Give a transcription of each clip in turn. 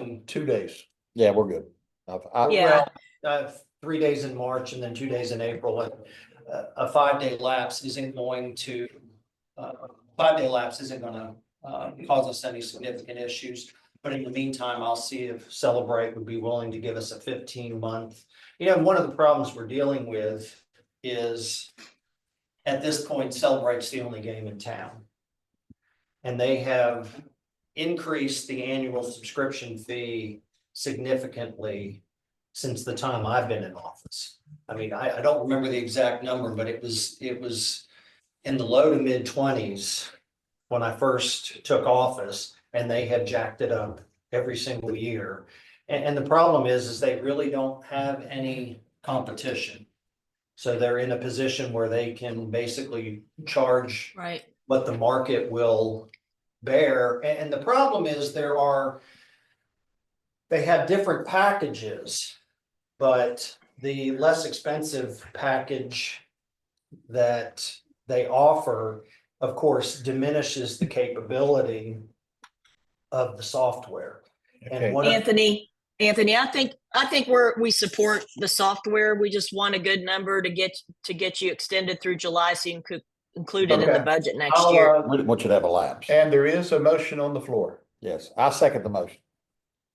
in two days. Yeah, we're good. I've, I, Yeah. Well, Uh, three days in March and then two days in April, and uh, a five-day lapse isn't going to, uh, five-day lapse isn't gonna, uh, cause us any significant issues. But in the meantime, I'll see if Celebrate would be willing to give us a fifteen-month. You know, one of the problems we're dealing with is at this point, Celebrate's the only game in town. And they have increased the annual subscription fee significantly since the time I've been in office. I mean, I, I don't remember the exact number, but it was, it was in the low to mid twenties when I first took office and they have jacked it up every single year. And, and the problem is, is they really don't have any competition. So they're in a position where they can basically charge Right. what the market will bear. A- And, the problem is there are, they have different packages, but the less expensive package that they offer, of course, diminishes the capability of the software. Okay. And one of, Anthony, Anthony, I think, I think we're, we support the software. We just want a good number to get, to get you extended through July so you can co- include it in the Okay. budget next I'll, year. uh, we didn't want you to have a lapse. And there is a motion on the floor. Yes, I second the motion.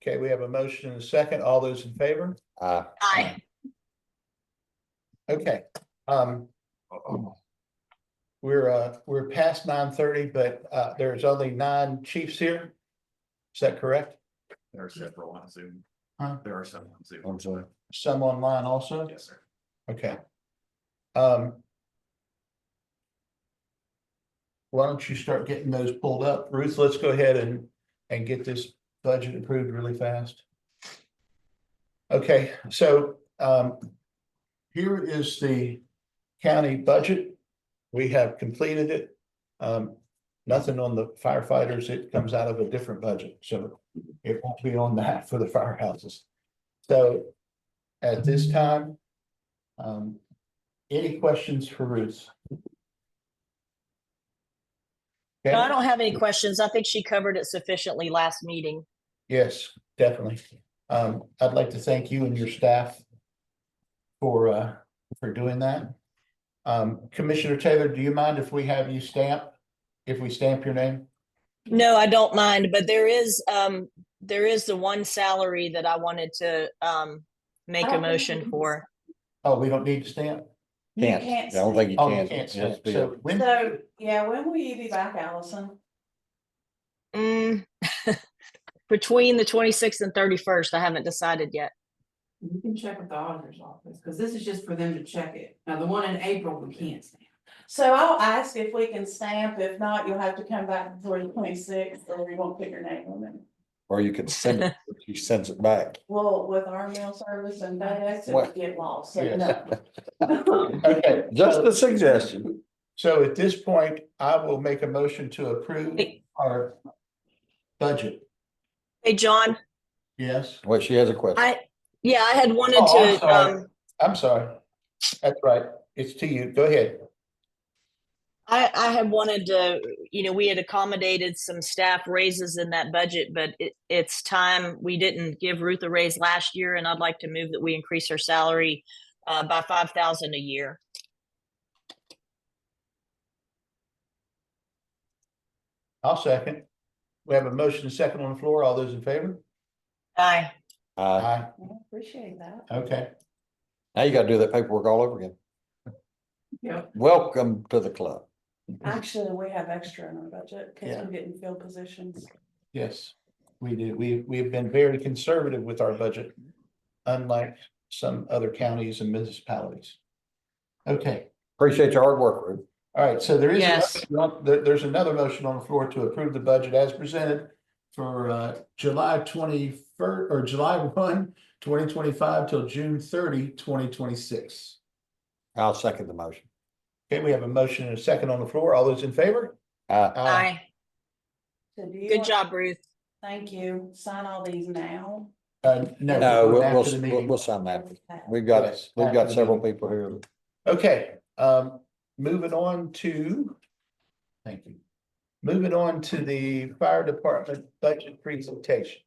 Okay, we have a motion and a second. All those in favor? Uh, I, Okay, um. Oh, We're, uh, we're past nine thirty, but, uh, there's only nine chiefs here. Is that correct? There are several on Zoom. Huh? There are several on Zoom. I'm sorry. Some online also? Yes, sir. Okay. Um. Why don't you start getting those pulled up? Ruth, let's go ahead and, and get this budget approved really fast. Okay, so, um. Here is the county budget. We have completed it. Um, nothing on the firefighters. It comes out of a different budget, so it won't be on that for the firehouses. So at this time, um, any questions for Ruth? no, I Okay, don't have any questions. I think she covered it sufficiently last meeting. yes, definitely. Um, I'd like to thank you and your staff for, uh, for doing that. Um, Commissioner Taylor, do you mind if we have you stamp, if we stamp your name? No, I don't mind, but there is, um, there is the one salary that I wanted to, um, make a motion for. Oh, we don't need to stamp? You Can't, I can't don't think you Oh, can. you can't It has stamp. to be a- So when, So, yeah, when will you be back, Allison? Mm. Between the twenty-sixth and thirty-first, I haven't decided yet. You can check with the auditor's office, because this is just for them to check it. Now, the one in April, we can't stamp. So I'll ask if we can stamp. If not, you'll have to come back before the twenty-sixth, or we won't put your name on it. Or you can send it, she sends it back. Well, with our mail service and FedEx, it What? would get lost, so Yes. no. okay, Just a suggestion. so at this point, I will make a motion to approve our budget, Hey, John, yes? Well, she has a question. I, yeah, I had wanted Oh, I'm to, sorry. um, I'm sorry. That's right. It's to you. Go ahead. I, I had wanted to, you know, we had accommodated some staff raises in that budget, but it, it's time, we didn't give Ruth a raise last year, and I'd like to move that we increase her salary uh, by five thousand a year. I'll second. We have a motion and second on the floor. All those in favor? Aye. Uh, Aye. I Appreciate that. Okay. now you gotta do that paperwork all over again. Yep. Welcome to the club. Actually, we have extra in our budget, because Yeah. we didn't fill positions. Yes, we do. We, we have been very conservative with our budget, unlike some other counties and municipalities. Okay, Appreciate your hard work, Ruth. all right. So there is, Yes. another- there- there's another motion on the floor to approve the budget as presented for uh, July twenty-first or July 1, 2025 till June 30, 2026. I'll second the motion. Okay, we have a motion and a second on the floor. All those in favor? Uh, Aye. Oh. So do you Good want- job, Ruth. Thank you. Sign all these now. Uh, no. no, we're we'll, going after the we'll, we'll- meeting. we'll sign that. Okay. We've got, Yes, we've after got the several meeting. people here. Okay, um, moving on to, thank you. Moving on to the fire department budget presentation.